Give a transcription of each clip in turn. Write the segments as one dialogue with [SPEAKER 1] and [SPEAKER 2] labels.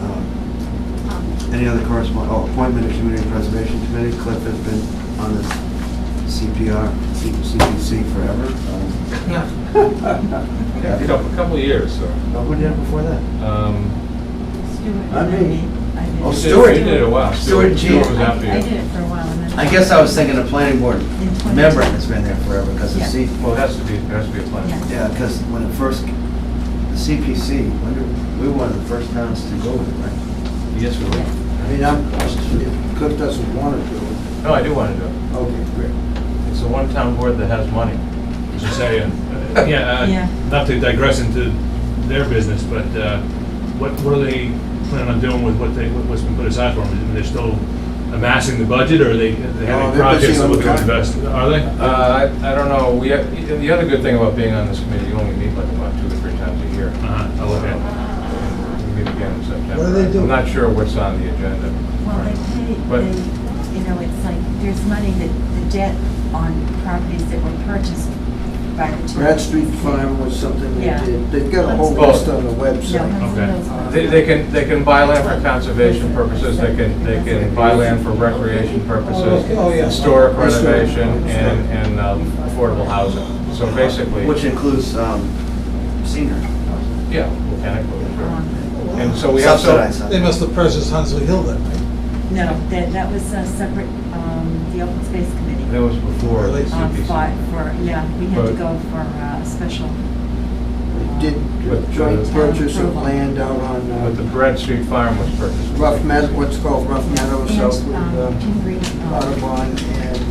[SPEAKER 1] Um, Any other correspondence? Oh, appointment of Community Preservation Committee. Cliff has been on this CPR, CPC forever. Um,
[SPEAKER 2] Yeah, a couple, a couple of years, so.
[SPEAKER 1] but Who did it before that?
[SPEAKER 2] Um,
[SPEAKER 3] Stuart.
[SPEAKER 1] I mean-
[SPEAKER 3] I did.
[SPEAKER 1] Oh,
[SPEAKER 2] you did-
[SPEAKER 1] Stuart.
[SPEAKER 2] You did it a while.
[SPEAKER 1] Stuart G.
[SPEAKER 2] Stuart was after
[SPEAKER 3] I I did
[SPEAKER 2] you.
[SPEAKER 3] it for a while and then.
[SPEAKER 1] I guess I was thinking the planning board
[SPEAKER 3] In 20.
[SPEAKER 1] member has been there forever because the
[SPEAKER 3] Yeah.
[SPEAKER 1] C,
[SPEAKER 2] Well, it has to be, it has to be a plan.
[SPEAKER 3] Yeah.
[SPEAKER 1] yeah, because when it first, the CPC, when did- we were one of the first towns to go with it, right?
[SPEAKER 2] Yes, we
[SPEAKER 3] Yes.
[SPEAKER 2] will.
[SPEAKER 1] I mean, I'm, if Cliff doesn't want to do it,
[SPEAKER 2] No, Oh, I do want to do it.
[SPEAKER 1] okay, great.
[SPEAKER 2] It's the one town board that has money.
[SPEAKER 4] As I say, uh, uh, yeah,
[SPEAKER 3] Yeah.
[SPEAKER 4] uh, not to digress into their business, but uh, what, what are they planning on doing with what they, what- what's been put aside for them? I mean, They're still amassing the budget, or are they are they
[SPEAKER 1] No,
[SPEAKER 4] having
[SPEAKER 1] they're
[SPEAKER 4] projects
[SPEAKER 1] busy
[SPEAKER 4] that
[SPEAKER 1] on
[SPEAKER 4] will
[SPEAKER 1] the-
[SPEAKER 4] invest? Are they?
[SPEAKER 2] Uh, I, I don't know, we, the other good thing about being on this committee, you only meet like about two or three times a year.
[SPEAKER 4] Uh-huh, oh, okay.
[SPEAKER 2] We meet again in September.
[SPEAKER 5] What do they do?
[SPEAKER 2] I'm not sure what's on the agenda.
[SPEAKER 3] Well, they
[SPEAKER 2] But-
[SPEAKER 3] pay, they, you know, it's like, there's money that, the debt on properties that were purchased by the town.
[SPEAKER 5] Brad Street Farm was something they
[SPEAKER 3] Yeah.
[SPEAKER 5] did. They've got a whole
[SPEAKER 2] Well-
[SPEAKER 5] list on the
[SPEAKER 3] No,
[SPEAKER 5] website.
[SPEAKER 3] Hudson
[SPEAKER 4] Okay.
[SPEAKER 3] Hills was-
[SPEAKER 2] They, they can, they can buy land for conservation purposes, they can, they can buy land for recreation purposes,
[SPEAKER 5] Oh, yeah.
[SPEAKER 2] historic renovation, and, and um, affordable housing. So basically,
[SPEAKER 1] Which includes um, senior.
[SPEAKER 2] yeah, mechanical, sure.
[SPEAKER 3] Um,
[SPEAKER 2] And so we have
[SPEAKER 1] Subsidized,
[SPEAKER 2] some,
[SPEAKER 1] huh?
[SPEAKER 5] They must have purchased Hunsley Hill then, right?
[SPEAKER 3] No, that, that was a separate, um, the open space committee.
[SPEAKER 2] that was before the
[SPEAKER 3] Um, fought
[SPEAKER 2] CPC.
[SPEAKER 3] for, yeah, we had to
[SPEAKER 2] But-
[SPEAKER 3] go for uh, a special.
[SPEAKER 5] They did
[SPEAKER 2] But-
[SPEAKER 5] joint
[SPEAKER 2] Town
[SPEAKER 5] purchase of
[SPEAKER 3] approval.
[SPEAKER 5] land out on
[SPEAKER 2] But the
[SPEAKER 5] uh,
[SPEAKER 2] Brad Street Farm was purchased.
[SPEAKER 5] Rough Meadow, what's called Rough Meadow,
[SPEAKER 3] And,
[SPEAKER 5] south
[SPEAKER 3] um,
[SPEAKER 5] of
[SPEAKER 3] Pingree, um,
[SPEAKER 5] Audubon and.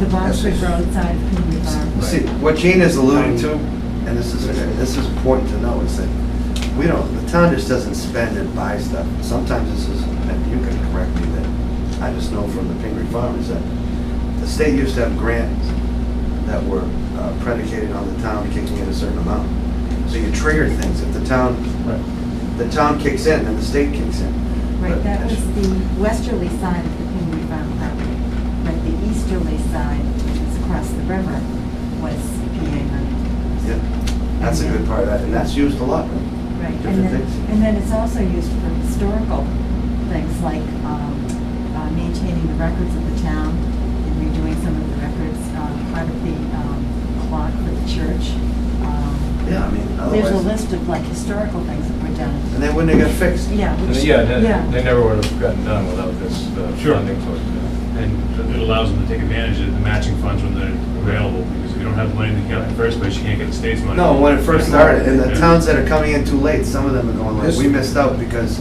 [SPEAKER 3] The Bonsford Road side of Pingree Farm.
[SPEAKER 1] um, See, what Gene is alluding to, and this is, this is important to know, is that we don't, the town just doesn't spend and buy stuff. Sometimes this is, and you can correct me, that I just know from the Pingree Farm is that the state used to have grants that were uh, predicated on the town kicking in a certain amount. So you trigger things. If the town,
[SPEAKER 2] Right.
[SPEAKER 1] the town kicks in, then the state kicks in.
[SPEAKER 3] Right, that was the westerly side of the Pingree Farm property, but the easterly side, which is across the river, was PA money.
[SPEAKER 1] Yeah, That's a good part of that, and that's used a lot, right?
[SPEAKER 3] Right, and
[SPEAKER 1] Different
[SPEAKER 3] then,
[SPEAKER 1] things.
[SPEAKER 3] and then it's also used for historical things like um, uh, maintaining the records of the town and redoing some of the records, um, part of the um, clock for the church. Um,
[SPEAKER 1] Yeah, I mean,
[SPEAKER 3] There's a
[SPEAKER 1] otherwise,
[SPEAKER 3] list of like historical things that were done.
[SPEAKER 1] and then when they got fixed,
[SPEAKER 3] Yeah,
[SPEAKER 2] And
[SPEAKER 3] which,
[SPEAKER 2] Yeah, they-
[SPEAKER 3] yeah,
[SPEAKER 2] they never would have gotten done without this uh,
[SPEAKER 4] Sure.
[SPEAKER 2] funding source.
[SPEAKER 4] And it allows them to take advantage of the matching funds when they're available, because if you don't have the money in the account in the first place, you can't get the state's money.
[SPEAKER 1] No, when it first started, and the
[SPEAKER 4] Yeah.
[SPEAKER 1] towns that are coming in too late, some of them are going like, we missed out because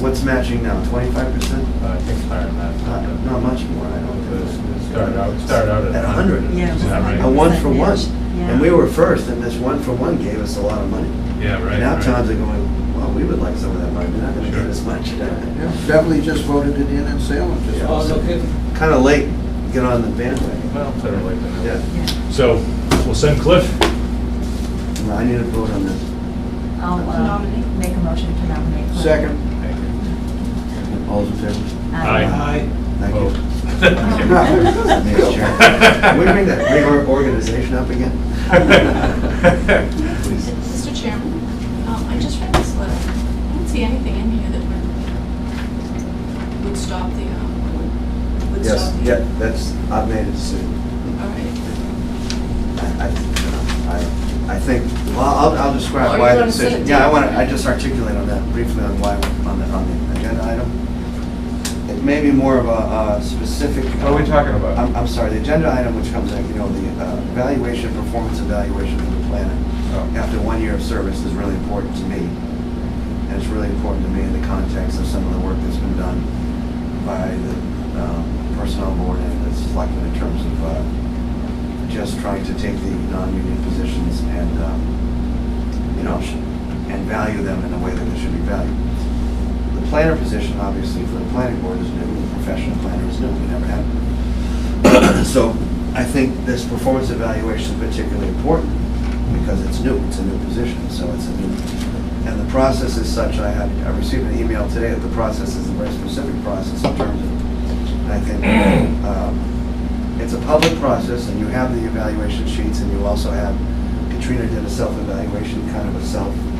[SPEAKER 1] what's matching now, twenty-five percent?
[SPEAKER 2] Uh, I think it's higher than that.
[SPEAKER 1] Not not much more, I don't
[SPEAKER 2] It was-
[SPEAKER 1] think.
[SPEAKER 2] it started out, it started out at.
[SPEAKER 1] Uh, At 100.
[SPEAKER 3] Yeah, it
[SPEAKER 2] Is
[SPEAKER 3] was
[SPEAKER 2] that right?
[SPEAKER 1] A one for one,
[SPEAKER 3] Yeah.
[SPEAKER 1] and we were first, and this one for one gave us a lot of money.
[SPEAKER 4] Yeah, right.
[SPEAKER 1] Now
[SPEAKER 4] right.
[SPEAKER 1] towns are going, well, we would like some of that money, we're not gonna
[SPEAKER 4] Sure.
[SPEAKER 1] get as much.
[SPEAKER 5] Yeah, Beverly just voted it in in Salem. just-
[SPEAKER 1] Kinda late, get on the bandwagon.
[SPEAKER 2] Well, better late than never.
[SPEAKER 1] Yeah,
[SPEAKER 3] yeah.
[SPEAKER 4] So, we'll send Cliff,
[SPEAKER 1] No, I need a vote on this.
[SPEAKER 3] I'll uh, make a motion to nominate. Cliff.
[SPEAKER 5] Second.
[SPEAKER 2] Thank you.
[SPEAKER 1] All's in favor?
[SPEAKER 3] Aye.
[SPEAKER 5] Aye.
[SPEAKER 1] Thank you.
[SPEAKER 2] Oh.
[SPEAKER 3] Vote.
[SPEAKER 1] Thanks, Chair. Can we bring that big organization up again? Please.
[SPEAKER 6] Mr. Chairman, um, I just read this letter. I don't see anything in here that would- would stop the, um, would
[SPEAKER 1] Yes,
[SPEAKER 6] stop the...
[SPEAKER 1] yeah, that's, I've made a decision.
[SPEAKER 6] All right.
[SPEAKER 1] I, I- I think, well, I'll, I'll
[SPEAKER 6] Oh,
[SPEAKER 1] describe
[SPEAKER 6] you
[SPEAKER 1] why the
[SPEAKER 6] wanna say
[SPEAKER 1] decision.
[SPEAKER 6] it?
[SPEAKER 1] Yeah, I want to, I just articulate on that briefly on why, we're on the, on the agenda item. It may be more of a uh, specific.
[SPEAKER 2] What are we talking about?
[SPEAKER 1] I'm, I'm sorry, the agenda item which comes in, you know, the uh, evaluation, performance evaluation for the planner
[SPEAKER 2] Oh,
[SPEAKER 1] after one year of service is really important to me. And it's really important to me in the context of some of the work that's been done by the um, personnel board and the selectmen in terms of uh, just trying to take the non-union positions and, um, you know, sh- and value them in a way that they should be valued. The planner position, obviously, for the planning board is new, the professional planner is new, we never had. one. So I think this performance evaluation is particularly important because it's new, it's a new position, so it's a new, and the process is such, I had, I received an email today that the process is a very specific process in terms of, and I think, um, it's a public process, and you have the evaluation sheets, and you also have, Katrina did a self-evaluation, kind of a self, um,